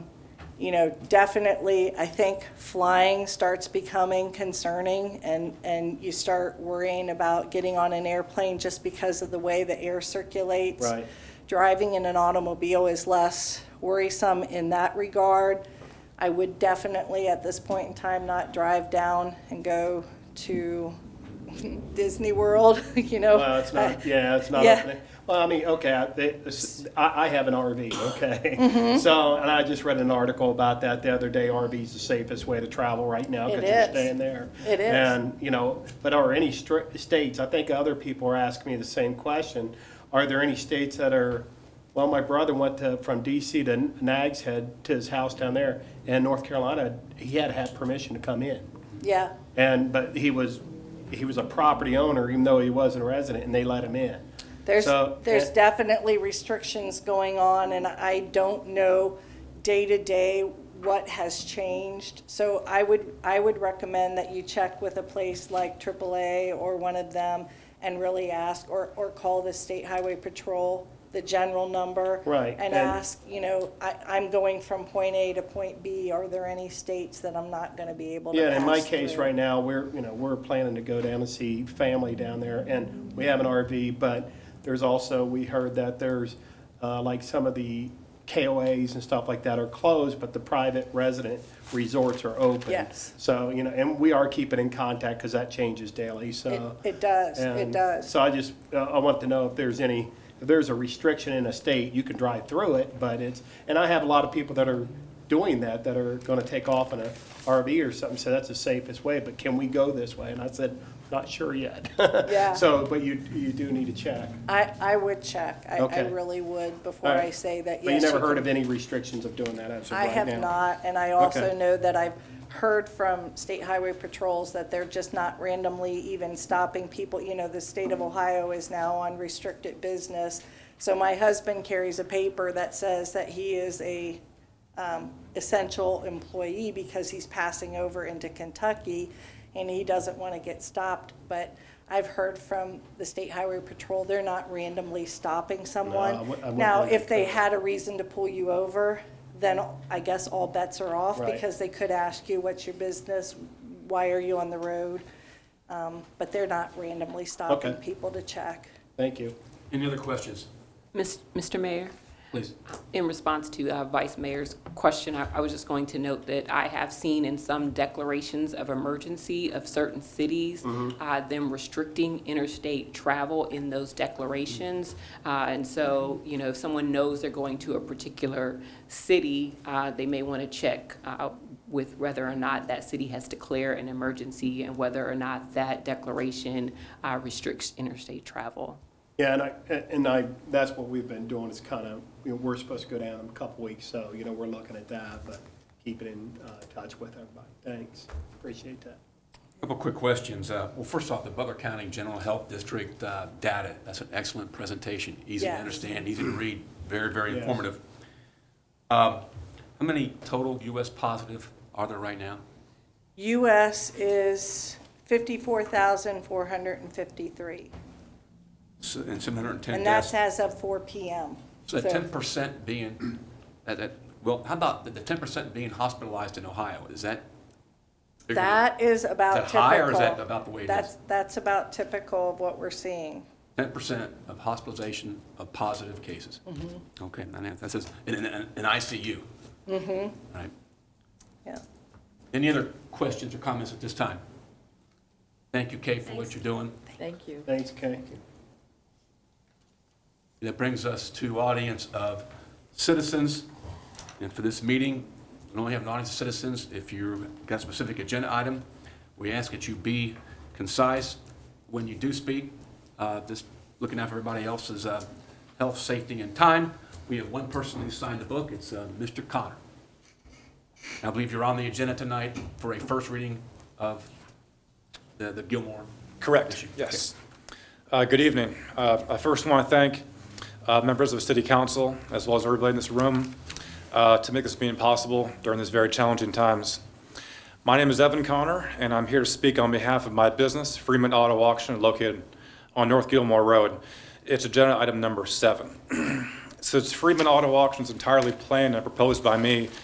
you know, definitely, I think flying starts becoming concerning, and, and you start worrying about getting on an airplane just because of the way the air circulates. Right. Driving in an automobile is less worrisome in that regard. I would definitely, at this point in time, not drive down and go to Disney World, you know? Well, it's not, yeah, it's not, uh, yeah. up there. well, I mean, okay, I, it's- I I have an RV, Mm-hmm. okay? So, and I just read an article about that the other day, RV's the safest way to travel right now. It Because you're is. staying there. It is. And, you know, but are any str- states, I think other people are asking me the same question, are there any states that are, well, my brother went to, from DC to Nags Head to his house down there, and North Carolina, he had to have permission to come in. Yeah. And, but he was, he was a property owner, even though he wasn't a resident, and they let him in. There's, So, there's eh. definitely restrictions going on, and I don't know day to day what has changed. So I would, I would recommend that you check with a place like AAA or one of them and really ask, or, or call the State Highway Patrol, the general number. Right, And and- ask, you know, I, I'm going from point A to point B, are there any states that I'm not gonna be able to Yeah, and in my pass case through? right now, we're, you know, we're planning to go down and see family down there, and we have an RV, but there's also, we heard that there's, uh, like some of the KOAs and stuff like that are closed, but the private resident resorts are open. Yes. So, you know, and we are keeping in contact, because that changes daily, so. It- It does, it And does. So I just, uh, I want to know if there's any, if there's a restriction in a state, you can drive through it, but it's, and I have a lot of people that are doing that, that are gonna take off in a RV or something, so that's the safest way, but can we go this way? And I said, not sure yet. Yeah. So, but you, you do need to check. I, I would check. I, I Okay. really would before All right. I say that, But you yes. never heard can- of any restrictions of doing that as of I right now? have not, and I also Okay. know that I've heard from state highway patrols that they're just not randomly even stopping people. You know, the state of Ohio is now on restricted business. So my husband carries a paper that says that he is a um, essential employee because he's passing over into Kentucky and he doesn't want to get stopped. But I've heard from the State Highway Patrol, they're not randomly stopping I someone. wou- I wouldn't Now, think if they so. had a reason to pull you over, then I guess all bets are off Right. because they could ask you, what's your business? Why are you on the road? Um, But they're not randomly stopping Okay. people to check. Thank you. Any other questions? Mis- Mr. Mayor, Please. in response to uh, Vice Mayor's question, I I was just going to note that I have seen in some declarations of emergency of certain cities, uh, them restricting interstate travel in those declarations. Uh, And so, you know, if someone knows they're going to a particular city, uh, they may want to check uh, with whether or not that city has declared an emergency and whether or not that declaration uh, restricts interstate travel. Yeah, and I, and I, that's what we've been doing, is kind of, you know, we're supposed to go down in a couple weeks, so, you know, we're looking at that, but keeping in uh, touch with everybody. Thanks, appreciate that. Couple quick questions. Uh, Well, first off, the Butler County General Health District uh, data, that's an excellent presentation, easy to Yes. understand, easy to read, very, very Yes. informative. Um, How many total US positive are there right now? US is 54,453, S- And 710 and that's deaths? as of 4 PM. So So- that 10% being, that- that- well, how about the the 10% being hospitalized in Ohio? Is that? figured in? That is about Is that high, or is that typical. about the way it is? That's, that's about typical of what we're seeing. Ten percent of hospitalization of positive cases. Okay, and that- that says, in, in, in ICU. Mm-hmm. Right. Yeah. Any other questions or comments at this time? Thank you, Kay, for what you're doing. Thank you. Thanks, Kay. That brings us to audience of citizens. And for this meeting, we only have an audience of citizens. If you've got a specific agenda item, we ask that you be concise when you do speak. Uh, Just looking out for everybody else's uh, health, safety, and time. We have one person who signed the book. It's uh, Mr. Connor. I believe you're on the agenda tonight for a first reading of the the Gilmore. Correct, issue. yes. Uh, Good evening. Uh, I first want to thank uh, members of the city council, as well as everybody in this room, uh, to make this meeting possible during these very challenging times. My name is Evan Connor, and I'm here to speak on behalf of my business, Freeman Auto Auction, located on North Gilmore Road. It's agenda item number seven. Since Freeman Auto Auction is entirely planned and proposed by me,